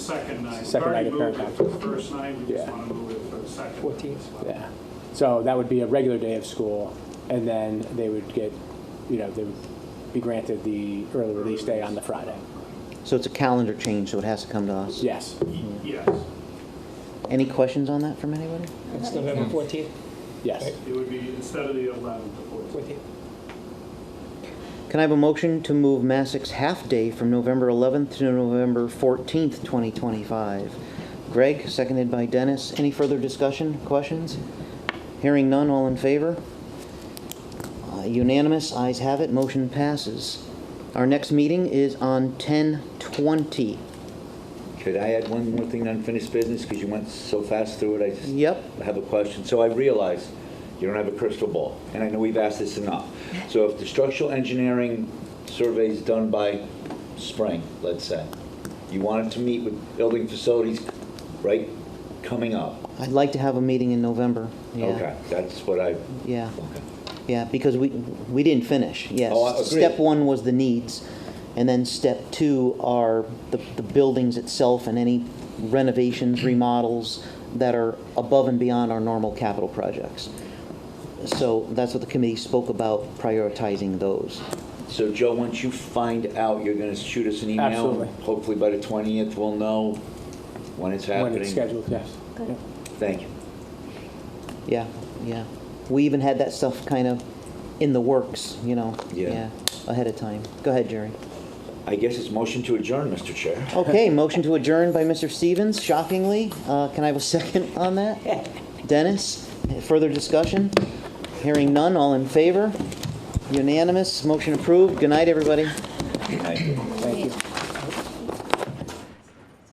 second night. Second night of parent We've already moved it to the first night, we just Yeah. want to move it for the second. night as 14th. well. Yeah. So that would be a regular day of school, and then they would get, you know, they would be granted the early release day on the Friday. So it's a calendar change, so it has to come to us. Yes. Y- Yes, Any questions on that from anybody? It's November 14th, Yes. it would be instead of the 11th, the 14th. 14th. Can I have a motion to move Massic's half-day from November 11th to November 14th, 2025? Greg, seconded by Dennis. Any further discussion, questions? Hearing none, all in favor? Uh, Unanimous, ayes have it, motion passes. Our next meeting is on 10/20. Could I add one more thing to unfinished business, because you went so fast through it, I just... Yep. I have a question. So I realize you don't have a crystal ball, and I know we've asked this enough. So if the structural engineering survey is done by spring, let's say, you wanted to meet with building facilities, right, coming up? I'd like to have a meeting in November. Yeah. Okay, that's what I, Yeah. okay. Yeah, because we, we didn't finish, yes. Oh, I agree. Step one was the needs, and then step two are the, the buildings itself and any renovations, remodels that are above and beyond our normal capital projects. So that's what the committee spoke about, prioritizing those. So Joe, once you find out, you're going to shoot us an email? and Absolutely. Hopefully by the 20th, we'll know when it's happening. When it's scheduled, yes. Good. Thank you. Yeah, yeah. We even had that stuff kind of in the works, you know? Yeah. Ahead of time. Go ahead, Jerry. I guess it's motion to adjourn, Mr. Chair. Okay, motion to adjourn by Mr. Stevens, shockingly. Uh, Can I have a second on that? Dennis, further discussion? Hearing none, all in favor? Unanimous, motion approved. Good night, everybody. Thank you.